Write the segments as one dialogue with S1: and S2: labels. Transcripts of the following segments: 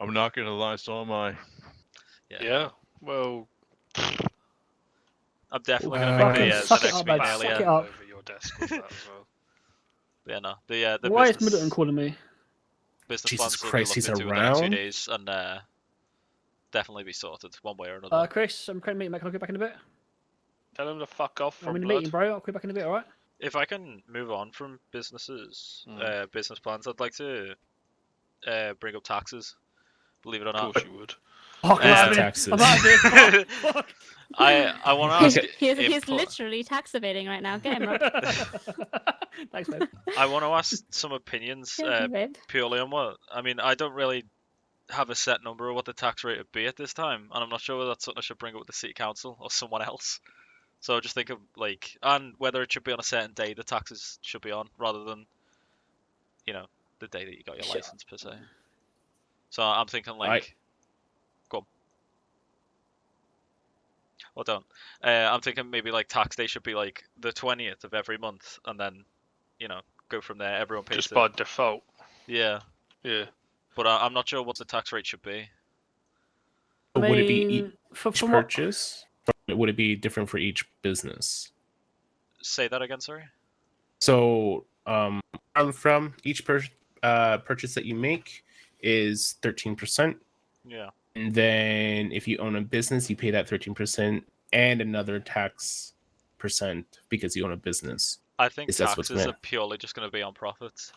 S1: I'm not gonna lie, so am I.
S2: Yeah.
S3: Yeah. Well,
S2: I'm definitely gonna
S4: Uh, fucking
S2: make the, uh, the
S4: suck it
S2: next
S4: up,
S2: meeting
S4: mate,
S2: early,
S4: suck
S2: yeah.
S4: it up.
S3: over your desk with that as well.
S2: But yeah, no. The, uh, the
S4: Why is
S2: business,
S4: Middleton calling me?
S2: business plans
S5: Jesus
S2: that we're
S5: Christ, he's
S2: looking into within the next
S5: around?
S2: two days and uh, definitely be sorted one way or another.
S4: Uh, Chris, I'm currently meeting. mate. Can I call you back in a bit?
S3: Tell him to fuck off
S4: I'm
S3: from
S4: in a
S3: blood.
S4: meeting, bro. I'll call you back in a bit. All right.
S2: if I can move on from businesses,
S4: Hmm.
S3: Mm.
S2: uh, business plans, I'd like to uh, bring up taxes. Believe it or
S3: Of
S2: not,
S3: course you would.
S4: Fuck, I'm
S2: Yeah.
S4: out of
S5: That's
S4: here.
S5: taxes.
S4: I'm out of here. Fuck, fuck.
S2: I I want to ask.
S6: he's
S2: if
S6: he's
S2: po-
S6: literally tax evading right now. Get him, Rob.
S4: Thanks, mate.
S2: I want to ask some opinions
S6: Get
S2: uh,
S6: him, Rob.
S2: purely on what I mean. I don't really have a set number of what the tax rate would be at this time, and I'm not sure whether that's something I should bring up with the city council or someone else. So I just think of like, and whether it should be on a certain day the taxes should be on, rather than, you know, the day that you got your
S4: Sure.
S2: license per se. So I'm thinking like, go on. Well, don't. Uh, I'm thinking maybe like tax day should be like the 20th of every month, and then, you know, go from there. Everyone pays.
S3: Just
S2: their-
S3: by default.
S2: Yeah
S3: Yeah.
S2: but I, I'm not sure what the tax rate should be.
S4: I
S5: Would it be
S4: mean, for,
S5: each
S4: from what-
S5: purchase? Or Would it be different for each business?
S2: Say that again, sorry.
S5: So, um, where I'm from each per- uh, purchase that you make is thirteen percent.
S2: Yeah.
S5: And then if you own a business, you pay that 13% and another tax percent because you own a business.
S2: I think
S5: Is that what's
S2: taxes are
S5: meant?
S2: purely just going to be on profits.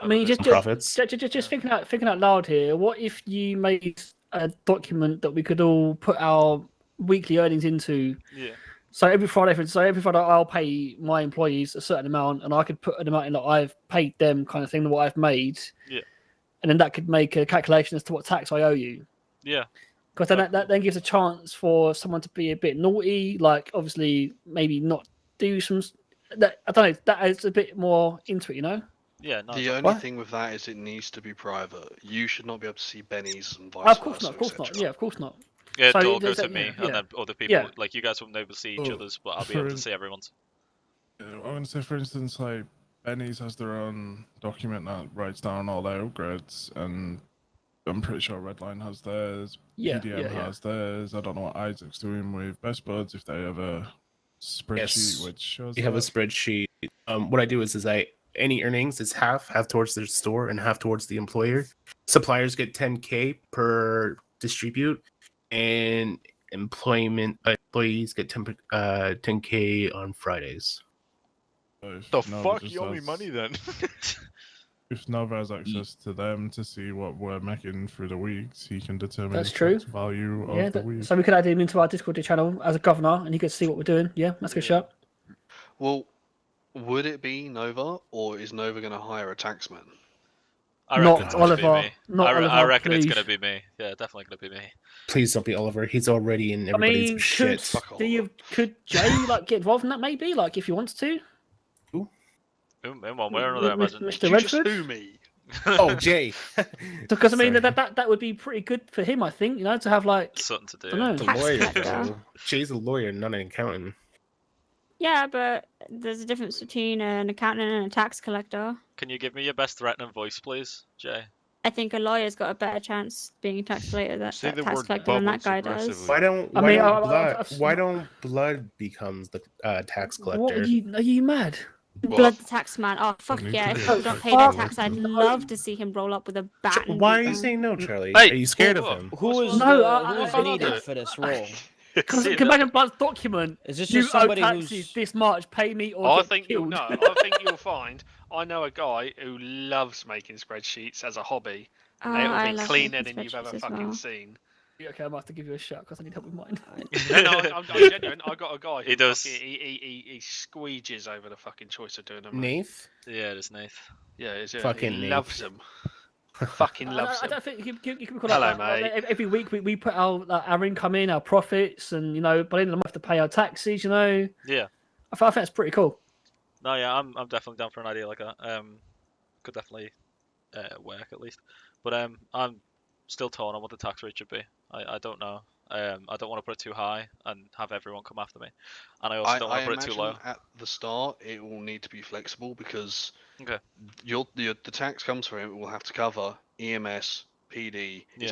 S4: I mean, just, just
S5: Profits.
S4: Ju- ju- ju- Just, thinking out thinking out loud here. What if you made a document that we could all put our weekly earnings into?
S2: Yeah.
S4: So every Friday, for so every Friday, I'll pay my employees a certain amount, and I could put an amount in that I've paid them, kind of thing, what I've made.
S2: Yeah.
S4: And then that could make a calculation as to what tax I owe you.
S2: Yeah.
S4: Because then that, that then gives a chance for someone to be a bit naughty, like obviously maybe not do some. s- That I don't know. That adds a bit more into it, you know.
S2: Yeah, no.
S3: the only
S4: What?
S3: thing with that is it needs to be private. You should not be able to see Benny's and
S2: Oh,
S3: vice
S4: of course
S3: versa,
S4: not. Of course not.
S3: etc.
S4: Yeah, of course not.
S2: yeah,
S4: so
S2: it'll all
S4: there's
S2: go
S4: that-
S2: to me
S4: yeah, yeah.
S2: and then other people.
S4: Yeah.
S2: Like, you guys won't be able to see each
S7: Oh,
S2: other's, but I'll be able to
S7: for-
S2: see everyone's.
S7: Uh, I'm going to say, for instance, like Benny's has their own document that writes down all their upgrades, and I'm pretty sure Redline has theirs,
S4: Yeah,
S7: PDM
S4: yeah, yeah.
S7: has theirs. I don't know what Isaac's doing with Best Buds if they have a spreadsheet
S5: Yes,
S7: which shows.
S5: You have a
S7: that.
S5: spreadsheet. Um, what I do is, is I any earnings is half, half towards the store and half towards the employer. Suppliers get 10k per distribute, and employment employees get 10 uh 10k on Fridays.
S7: So if
S1: The
S7: Nova
S1: fuck,
S7: just
S1: you owe me
S7: has-
S1: money then.
S7: If Nova has access to them to see what we're making through the weeks, he can determine
S4: That's
S7: the
S4: true.
S7: value of
S4: Yeah,
S7: the
S4: that-
S7: week.
S4: so we could add him into our Discord channel as a governor, and he could see what we're doing. Yeah, that's a good
S3: Yeah.
S4: shot.
S3: Well, would it be Nova or is Nova going to hire a taxman?
S2: I reckon
S4: Not
S2: it's gonna be
S4: Oliver.
S2: me.
S4: Not
S2: I, re-
S4: Oliver.
S2: I reckon
S4: please.
S2: it's going to be me. Yeah, definitely going to be me.
S5: Please don't be Oliver. He's already in
S4: I
S5: everybody's
S4: mean, could
S5: shit.
S3: Fuck
S4: do
S3: all.
S4: you could Jay like get involved in that maybe? Like if he wants to.
S2: In, in one way or
S4: M-
S2: another, I
S4: M-
S2: imagine.
S4: Mr.
S3: Did you just
S4: Redford?
S3: sue me?
S5: Oh, Jay.
S4: Because I mean
S5: Sorry.
S4: that, that that would be pretty good for him, I think. You know, to have like
S2: Something to do.
S4: I don't know.
S5: The
S6: Tax
S5: lawyer.
S6: collector.
S5: though. Jay's a lawyer, not an accountant.
S6: Yeah, but there's a difference between an accountant and a tax collector.
S2: Can you give me your best threatening voice, please, Jay?
S6: I think a lawyer's got a better chance being tax related that,
S1: Say
S6: that
S1: the
S6: tax
S1: word
S6: collector than that
S1: bubbles
S6: guy does.
S1: aggressively.
S5: Why don't
S4: I
S5: why
S4: mean,
S5: don't
S4: I- I-
S5: blood
S4: I've s-
S5: why don't blood becomes the uh, tax collector?
S4: what are you are you mad?
S6: Blood the tax man. Oh fuck
S7: need to
S6: yeah! If
S7: be a
S6: people don't
S7: tax
S6: pay their
S4: collector.
S6: tax, I'd
S4: No.
S6: love to see him roll up with a bat.
S5: Ch-
S6: and
S5: why are
S6: beat
S5: you
S6: them.
S5: saying no, Charlie?
S3: Hey,
S5: are you scared of
S3: what-
S5: him?
S8: Who was
S4: No,
S8: the,
S4: I-
S8: who was
S4: I- I-
S8: needed
S4: I-
S8: for this role?
S4: Because
S2: See,
S4: back in Blood's document.
S8: Is this
S4: You
S8: just
S4: owe
S8: somebody
S4: taxes
S8: who's?
S4: this much. Pay me or
S3: Oh, I
S4: get
S3: think you'll
S4: killed.
S3: know. I think you'll find. I know a guy who loves making spreadsheets as a hobby.
S6: Oh,
S3: and it'll
S6: I
S3: be
S6: love
S3: cleaner
S6: making
S3: than you've ever
S6: spreadsheets as
S3: fucking
S6: well.
S3: seen.
S4: okay, I might have to give you a shot because I need help with mine.
S3: No, no, I'm, I'm, I'm genuine. I got a guy.
S2: He
S3: who
S2: does.
S3: fucking- he, he, he, he squeeges over the fucking choice of doing them.
S5: Nath?
S2: Yeah, it is Nath.
S3: Yeah, is it?
S5: Fucking
S3: he
S5: Nate.
S3: loves them. fucking
S4: I-
S3: loves
S4: I, I
S3: them.
S4: don't think you, you, you can call
S3: Hello,
S4: it like,
S3: mate.
S4: ev- every week we, we put our like, our income in, our profits, and you know, by the end of the month to pay our taxes. You know,
S2: Yeah.
S4: I, th- I think that's pretty cool.
S2: No, yeah, I'm I'm definitely down for an idea like that. Um, could definitely uh, work at least. But um, I'm still torn on what the tax rate should be. I, I don't know. Um, I don't want to put it too high and have everyone come after me. And I also
S3: I,
S2: don't
S3: I
S2: want to put
S3: imagine
S2: it too low.
S3: at the start it will need to be flexible because
S2: Okay.
S3: E your, your the tax comes from it will have to cover EMS, PD.
S2: Yeah.
S3: It's